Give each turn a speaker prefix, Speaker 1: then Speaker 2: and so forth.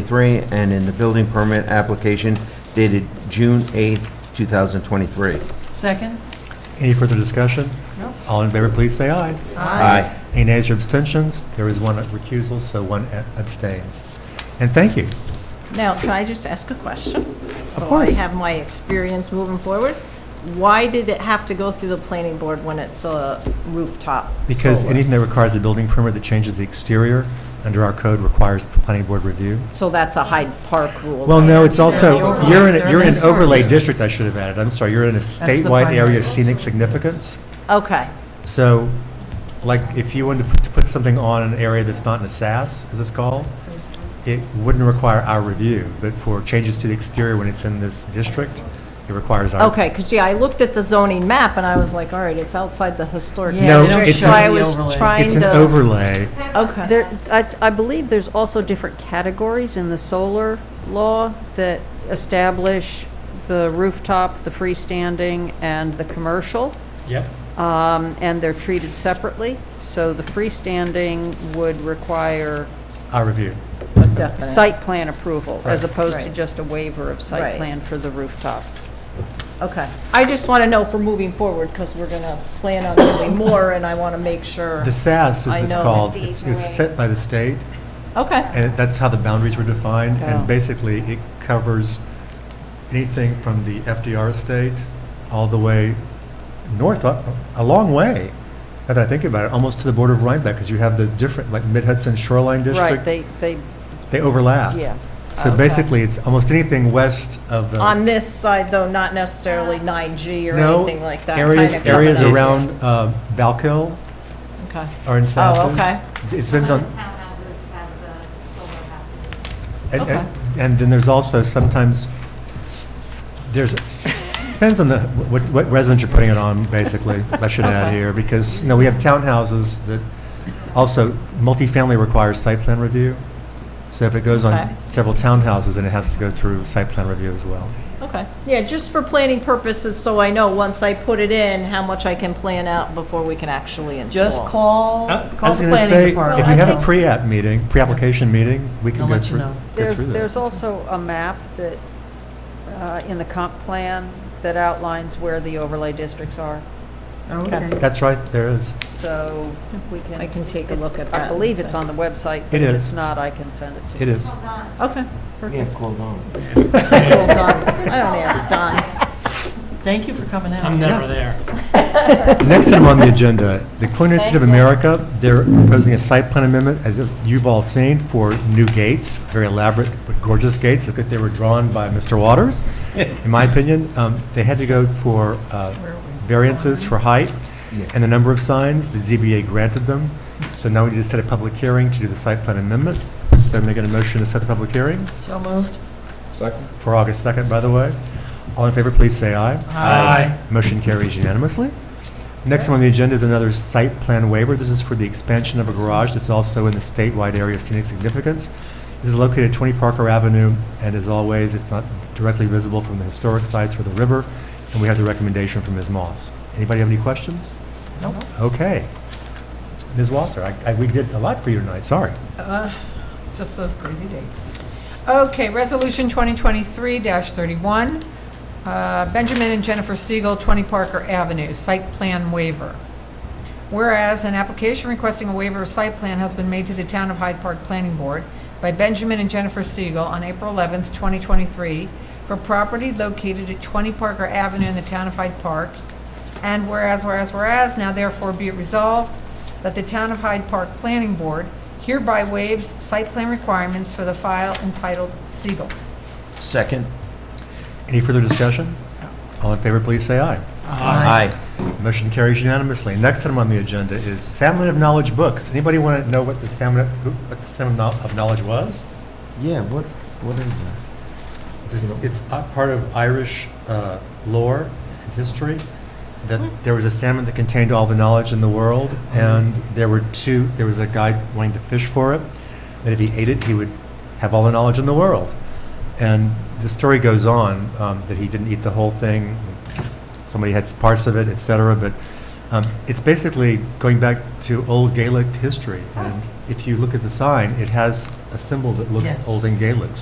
Speaker 1: 2023, and in the building permit application dated June 8th, 2023.
Speaker 2: Second?
Speaker 3: Any further discussion?
Speaker 2: No.
Speaker 3: All in favor, please say aye.
Speaker 1: Aye.
Speaker 3: Any nays or abstentions? There is one recusal, so one abstains. And thank you.
Speaker 2: Now, can I just ask a question? Of
Speaker 3: course.
Speaker 2: So I have my experience moving forward. Why did it have to go through the planning board when it's a rooftop?
Speaker 3: Because
Speaker 2: solar?
Speaker 3: anything that requires a building permit that changes the exterior under our code requires planning board review.
Speaker 2: So that's a Hyde Park rule.
Speaker 3: Well, no, it's also,
Speaker 2: overlay.
Speaker 3: you're in,
Speaker 2: They're
Speaker 3: you're in an
Speaker 2: next door.
Speaker 3: overlay district, I should have added. I'm sorry, you're in a
Speaker 2: the
Speaker 3: statewide area
Speaker 2: primary.
Speaker 3: of scenic significance.
Speaker 2: Okay,
Speaker 3: So, like, if you wanted to put- to put something on an area that's not in a SAS, as it's called, it wouldn't require our review, but for changes to the exterior when it's in this district, it requires our.
Speaker 2: okay, because, yeah, I looked at the zoning map and I was like, all right, it's outside the historic.
Speaker 3: Yeah, No, they don't
Speaker 2: district,
Speaker 3: it's
Speaker 2: So
Speaker 3: an-
Speaker 2: I was
Speaker 4: overlay.
Speaker 2: trying to.
Speaker 3: It's an overlay.
Speaker 2: Okay,
Speaker 5: There, I, I believe there's also different categories in the solar law that establish the rooftop, the freestanding, and the commercial,
Speaker 3: Yep.
Speaker 5: um, and they're treated separately. So the freestanding would require
Speaker 3: Our review.
Speaker 2: definite.
Speaker 5: site plan approval, as
Speaker 3: Right.
Speaker 5: opposed to
Speaker 2: Right.
Speaker 5: just a waiver of
Speaker 2: Right.
Speaker 5: site plan for the rooftop.
Speaker 2: Okay. I just want to know for moving forward, because we're going to plan on doing more, and I want to make sure.
Speaker 3: The SAS,
Speaker 2: I
Speaker 3: as it's
Speaker 2: know.
Speaker 3: called, it's it's set by the state,
Speaker 2: Okay,
Speaker 3: and that's how the boundaries were defined.
Speaker 5: Oh.
Speaker 3: And basically, it covers anything from the FDR estate all the way north, a a long way, now that I think about it, almost to the border of Rhinebeck, because you have the different, like Mid-Hudson Shoreline
Speaker 5: Right,
Speaker 3: District.
Speaker 5: they, they,
Speaker 3: They overlap.
Speaker 5: yeah.
Speaker 3: So
Speaker 2: Okay.
Speaker 3: basically, it's almost anything west of the.
Speaker 2: on this side, though, not necessarily 9G or
Speaker 3: No,
Speaker 2: anything like that.
Speaker 3: Areas,
Speaker 2: kinda
Speaker 3: areas
Speaker 2: coming up.
Speaker 3: around uh, Valkill
Speaker 2: Okay.
Speaker 3: are in Sassos.
Speaker 2: Oh, okay.
Speaker 3: It depends on,
Speaker 6: Town houses have the solar houses.
Speaker 3: and,
Speaker 2: Okay.
Speaker 3: and- and then there's also sometimes, there's, depends on the, what, what residence you're putting it on, basically, I should add
Speaker 2: Okay.
Speaker 3: here, because, you know, we have townhouses that also, multifamily requires site plan review. So if it goes
Speaker 2: Okay.
Speaker 3: on several townhouses, then it has to go through site plan review as well.
Speaker 2: Okay. Yeah, just for planning purposes, so I know once I put it in, how much I can plan out before we can actually install.
Speaker 4: Just call,
Speaker 3: I I
Speaker 4: call
Speaker 3: was
Speaker 4: the
Speaker 3: going to say, if
Speaker 4: planning
Speaker 3: you
Speaker 4: department.
Speaker 3: have a pre-app meeting, pre-application meeting, we
Speaker 4: They'll
Speaker 3: can go
Speaker 4: let you
Speaker 3: through,
Speaker 4: know.
Speaker 3: go
Speaker 5: There's,
Speaker 3: through that.
Speaker 5: there's also a map that, uh, in the comp plan that outlines where the overlay districts are.
Speaker 4: Oh, okay.
Speaker 3: That's right, there is.
Speaker 5: So we can.
Speaker 2: I can take a
Speaker 5: it's-
Speaker 2: look at that
Speaker 5: I
Speaker 2: and
Speaker 5: believe it's
Speaker 2: see.
Speaker 5: on the website.
Speaker 3: It
Speaker 5: but If
Speaker 3: is.
Speaker 5: it's not, I can send it to you.
Speaker 3: It is.
Speaker 2: Okay.
Speaker 1: Yeah, cool, on.
Speaker 2: Well, Don, I don't ask Don.
Speaker 4: Thank you for coming out.
Speaker 7: I'm never there.
Speaker 3: Next item on the agenda, the Culinary Institute of America, they're proposing a site plan amendment, as you've all seen, for new gates, very elaborate, but gorgeous gates. Look at, they were drawn by Mr. Waters, in my opinion. Um, They had to go for uh, variances for height
Speaker 1: Yeah.
Speaker 3: and the number of signs. The ZBA granted them. So now we need to set a public hearing to do the site plan amendment. So making a motion to set the public hearing
Speaker 4: So moved.
Speaker 1: Second.
Speaker 3: for August 2nd, by the way. All in favor, please say aye.
Speaker 7: Aye.
Speaker 3: Motion carries unanimously. Next on the agenda is another site plan waiver. This is for the expansion of a garage that's also in the statewide area of scenic significance. This is located at 20 Parker Avenue, and as always, it's not directly visible from the historic sites or the river, and we have the recommendation from Ms. Moss. Anybody have any questions?
Speaker 4: Nope.
Speaker 3: Okay. Ms. Wasser, I- I- we did a lot for you tonight, sorry.
Speaker 8: Uh, Just those crazy dates. Okay, Resolution 2023-31, uh, Benjamin and Jennifer Siegel, 20 Parker Avenue, site plan waiver. Whereas an application requesting a waiver of site plan has been made to the Town of Hyde Park Planning Board by Benjamin and Jennifer Siegel on April 11th, 2023, for property located at 20 Parker Avenue in the Town of Hyde Park. And whereas, whereas, whereas, now therefore be it resolved that the Town of Hyde Park Planning Board hereby waives site plan requirements for the file entitled Siegel.
Speaker 1: Second.
Speaker 3: Any further discussion? All in favor, please say aye.
Speaker 1: Aye.
Speaker 3: Motion carries unanimously. Next item on the agenda is Salmon of Knowledge books. Anybody want to know what the Salmon, who- what the Salmon of Kno- of Knowledge was?
Speaker 1: Yeah, what, what is that?
Speaker 3: This- It's a part of Irish uh, lore and history, that there was a salmon that contained all the knowledge in the world, and there were two, there was a guy wanting to fish for it, that if he ate it, he would have all the knowledge in the world. And the story goes on, um, that he didn't eat the whole thing, somebody had parts of it, et cetera, but Um, It's basically going back to old Gaelic history. And if you look at the sign, it has a symbol that looks
Speaker 4: Yes.
Speaker 3: old in Gaelic.